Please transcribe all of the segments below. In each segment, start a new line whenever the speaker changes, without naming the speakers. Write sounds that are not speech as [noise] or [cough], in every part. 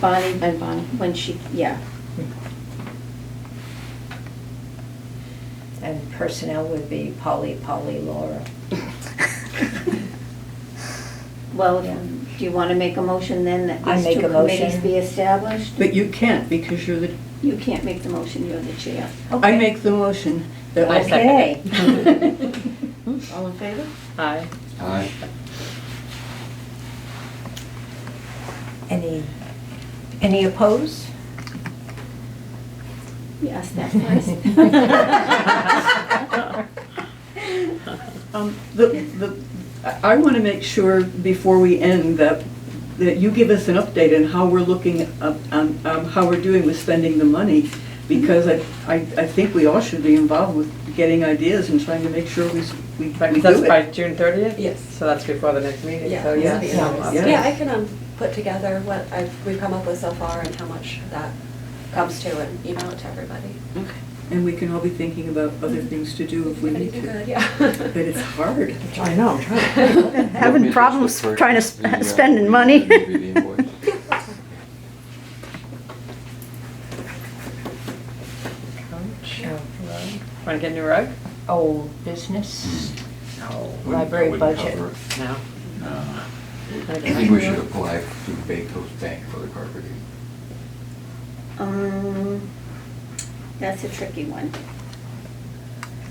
Bonnie,
And Bonnie.
when she,
[laughs]
yeah,
And personnel would be Polly, Polly, Laura.
well,
Yeah.
if- do you want to make a motion then that
I
these
make
two
a motion.
committees be established?
But you can't because you're the,
You can't make the motion, you're the chair.
I make the motion that
I
I,
second.
Okay.
[laughs] all in favor?
Aye.
Aye.
Any, any
[laughs]
opposed?
You asked
[laughs]
that first.
Um, The, the, I- I want to make sure before we end that, that you give us an update on how we're looking, up- on um, how we're doing with spending the money, because I, I I think we all should be involved with getting ideas and trying to make sure we, s- we we
That's
do
by
it.
June thirtieth?
Yes.
So that's before the next meeting,
Yeah,
so
it's
yeah.
the
so
end.
I'll-
Yeah.
Yeah, I can um, put together what I've, we've come up with so far and how much that comes to and email it to everybody.
Okay. And we can all be thinking about other things to do if we need
Anything good,
to.
yeah.
But
[laughs]
it's hard.
I know, having problems trying to
The, uh,
sp- spending money.
maybe the invoice.
Sure.
[laughs] Wanna get a new rug?
Old Oh, business? Oh,
No.
[laughs]
Wouldn't-
Library
wouldn't
budget.
cover it.
No.
No.
Wanna
I
get a
think
new
we should
rug?
apply through Bakos Bank for the carpeting.
Um, That's a tricky one.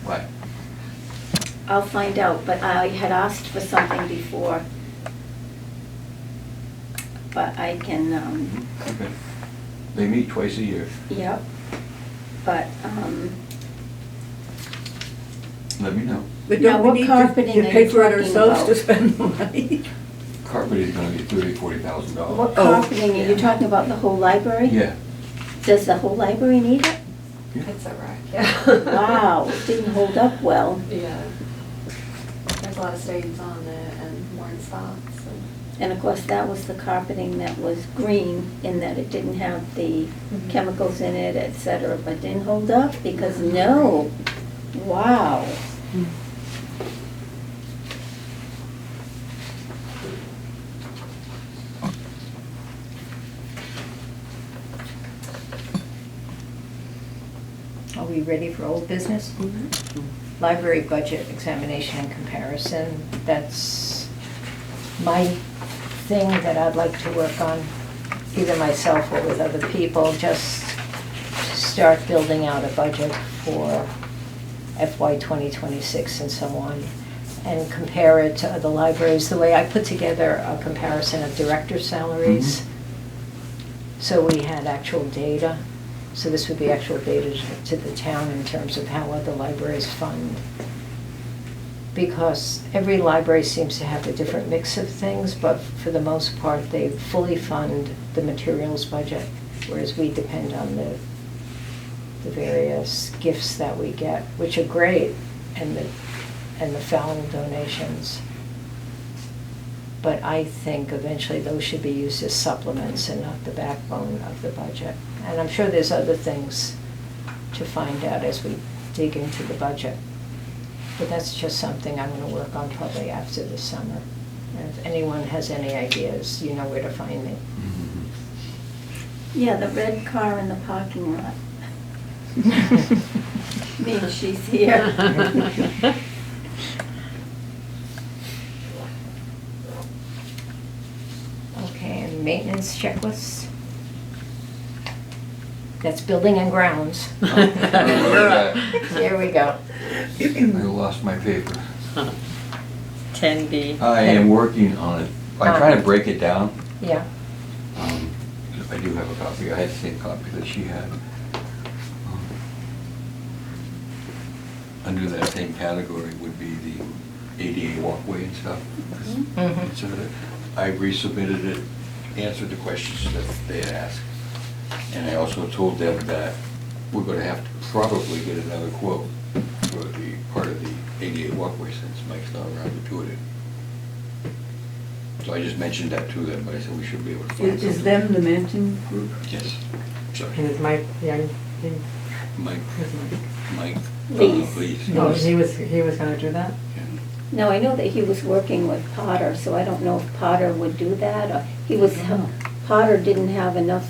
Why?
I'll find out, but I had asked for something before. But I can, um,
Mm-hmm.
Okay. They meet twice a year.
yep, but, um,
Let me know.
But
Now,
don't
what
we need to-
carpeting
to
are
pay
you
for it
talking
ourselves to
about?
spend the money?
Carpeting is gonna be thirty, forty thousand
what
dollars.
Oh,
carpeting, are you talking about the whole library?
Yeah.
Does the whole library need it?
Yeah.
It's a wreck, yeah. [laughs]
Wow, it didn't hold up well.
Yeah. There's a lot of stains on it and worn socks and.
And of course, that was the carpeting that was green in that it didn't have the
Mhm.
chemicals in it, et cetera, but didn't hold up because no, wow.
Are we ready for old business?
Mm-hmm.
Library budget examination and comparison, that's my thing that I'd like to work on, either myself or with other people, just to start building out a budget for FY 2026 and so on, and compare it to other libraries, the way I put together a comparison of director salaries.
Mhm.
So we had actual data, so this would be actual data to- to the town in terms of how other libraries fund. Because every library seems to have a different mix of things, but for the most part, they fully fund the materials budget, whereas we depend on the, the various gifts that we get, which are great, and the, and the Fallon donations. But I think eventually those should be used as supplements and not the backbone of the budget. And I'm sure there's other things to find out as we dig into the budget. But that's just something I'm gonna work on probably after the summer. And If anyone has any ideas, you know where to find me.
Mhm.
Yeah, the red car in the parking lot
[laughs]
means she's here.
Okay, and maintenance checklists? That's building and grounds.
You're up.
There we go.
Mm-hmm. [clears throat] I lost my paper.
[laughs] Ten B.
I am working on it. I try to break it down.
Yeah.
Um, I do have a copy. I had the same copy that she had. Um, Under that same category would be the ADA walkway and stuff.
Mhm.
It's sort of- I resubmitted it, answered the questions that they had asked. And I also told them that we're gonna have to probably get another quote for the part of the ADA walkway since Mike's not around to do it. So I just mentioned that to them, but I said we should be able to find
Is
something.
is them the Manton group?
Yes,
And
sorry.
is Mike Young, he,
Mike,
is Mike-
Mike. uh,
Please.
Please.
no, he was, he was gonna do that?
No, I know that he was working with Potter, so I don't know if Potter would do that, or he was,
I don't know.
Potter didn't have enough